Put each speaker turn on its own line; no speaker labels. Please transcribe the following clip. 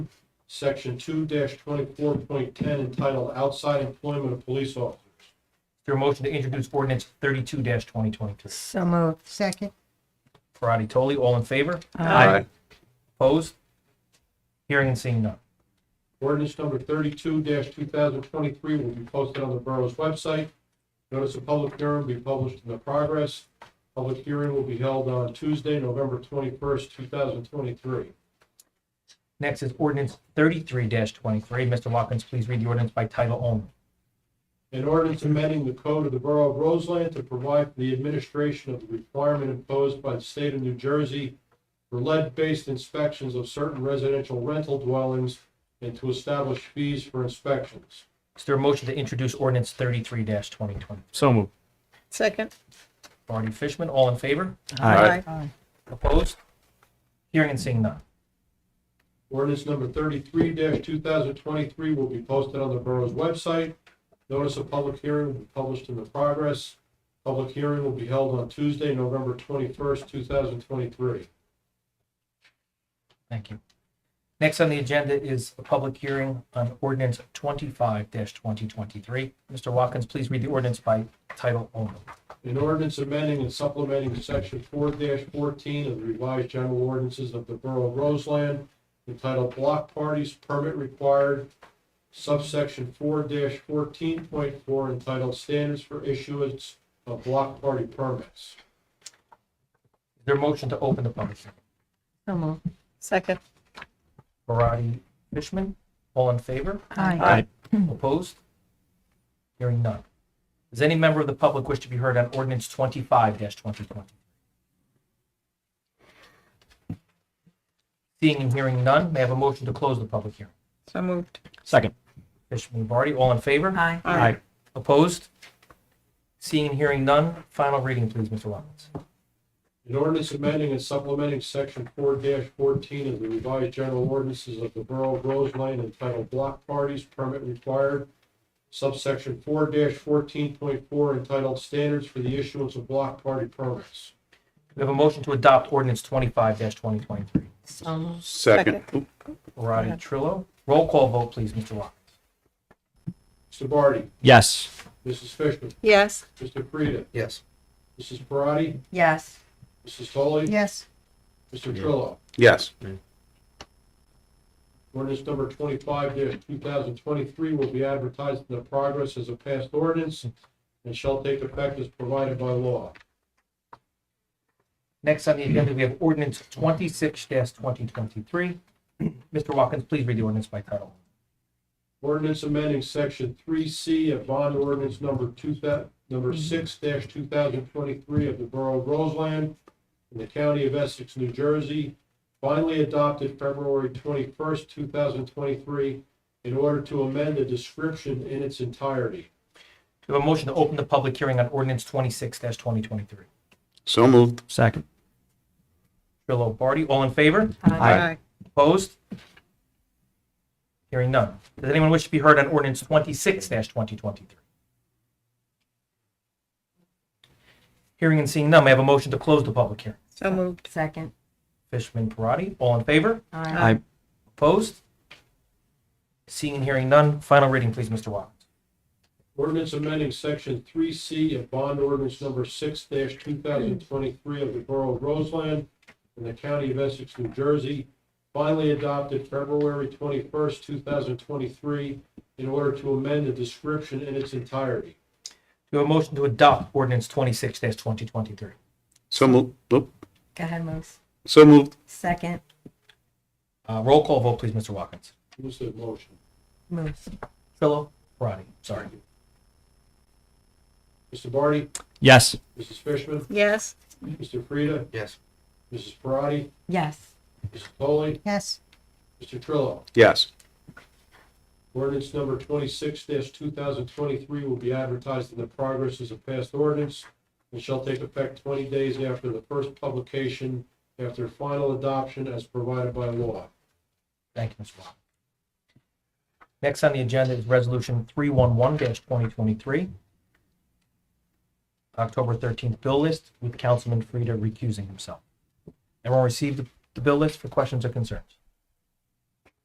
section two twenty-four point ten entitled Outside Employment of Police Officers.
Is there a motion to introduce ordinance thirty-two twenty twenty-two?
So moved.
second,
Parati, Toley, all in favor?
Aye.
Opposed? Hearing and seeing none.
Ordinance number thirty-two two thousand twenty-three will be posted on the borough's website. Notice of public hearing will be published in the progress. Public hearing will be held on Tuesday, November twenty-first, two thousand twenty-three.
Next is ordinance thirty-three twenty-three. Mr. Watkins, please read the ordinance by title only.
An ordinance amending the code of the Borough of Roseland to provide for the administration of the requirement imposed by the state of New Jersey for lead-based inspections of certain residential rental dwellings and to establish fees for inspections.
Is there a motion to introduce ordinance thirty-three twenty twenty?
So moved.
Second.
Parati, Fishman, all in favor?
Aye.
Opposed? Hearing and seeing none.
Ordinance number thirty-three two thousand twenty-three will be posted on the borough's website. Notice of public hearing will be published in the progress. Public hearing will be held on Tuesday, November twenty-first, two thousand twenty-three.
Thank you. Next on the agenda is a public hearing on ordinance twenty-five twenty twenty-three. Mr. Watkins, please read the ordinance by title only.
An ordinance amending and supplementing section four fourteen of the revised general ordinances of the Borough of Roseland entitled Block Parties Permit Required, subsection four fourteen point four entitled Standards for Issuance of Block Party Permits.
Is there a motion to open the public hearing?
so moved,
Second.
Parati, Fishman, all in favor?
aye,
Aye.
Opposed? Hearing none. Does any member of the public wish to be heard on ordinance twenty-five twenty twenty? Seeing and hearing none, may I have a motion to close the public hearing?
So moved.
Second.
Fishman, Barty, all in favor?
aye,
Aye.
Opposed? Seeing and hearing none, final reading, please, Mr. Watkins.
An ordinance amending and supplementing section four fourteen of the revised general ordinances of the Borough of Roseland entitled Block Parties Permit Required, subsection four fourteen point four entitled Standards for the Issuance of Block Party Permits.
We have a motion to adopt ordinance twenty-five twenty twenty-three.
so moved,
Second.
Parati, Trillo, roll call vote, please, Mr. Watkins.
Mr. Barty,
Yes.
Mrs. Fishman,
Yes.
Mr. Frieda,
Yes.
Mrs. Parati,
yes,
Mrs. Foley,
yes,
Mr. Trillo.
Yes.
Ordinance number twenty-five two thousand twenty-three will be advertised in the progress as a passed ordinance and shall take effect as provided by law.
Next on the agenda, we have ordinance twenty-six twenty twenty-three. Mr. Watkins, please read the ordinance by title.
Ordinance amending section three C of bond ordinance number two thou, number six two thousand twenty-three of the Borough of Roseland in the County of Essex, New Jersey, finally adopted February twenty-first, two thousand twenty-three, in order to amend the description in its entirety.
We have a motion to open the public hearing on ordinance twenty-six twenty twenty-three.
So moved. Second.
Trillo, Barty, all in favor?
Aye.
Opposed? Hearing none. Does anyone wish to be heard on ordinance twenty-six twenty twenty-three? Hearing and seeing none, may I have a motion to close the public hearing?
So moved.
second,
Fishman, Parati, all in favor?
aye,
Aye.
Opposed? Seeing and hearing none, final reading, please, Mr. Watkins.
Ordinance amending section three C of bond ordinance number six two thousand twenty-three of the Borough of Roseland in the County of Essex, New Jersey, finally adopted February twenty-first, two thousand twenty-three, in order to amend the description in its entirety.
Do a motion to adopt ordinance twenty-six twenty twenty-three.
So moved.
go ahead, Moose,
So moved.
second,
Uh, roll call vote, please, Mr. Watkins.
Who's the motion?
Moose,
Trillo. Parati, sorry.
Mr. Barty,
Yes.
Mrs. Fishman,
Yes.
Mr. Frieda,
Yes.
Mrs. Parati,
yes,
Mrs. Foley,
yes,
Mr. Trillo.
Yes.
Ordinance number twenty-six two thousand twenty-three will be advertised in the progress as a passed ordinance and shall take effect twenty days after the first publication, after final adoption as provided by law.
Thank you, Mr. Watkins. Next on the agenda is resolution three one one twenty twenty-three. October thirteenth bill list with Councilman Frieda recusing himself. Everyone received the- the bill list for questions or concerns?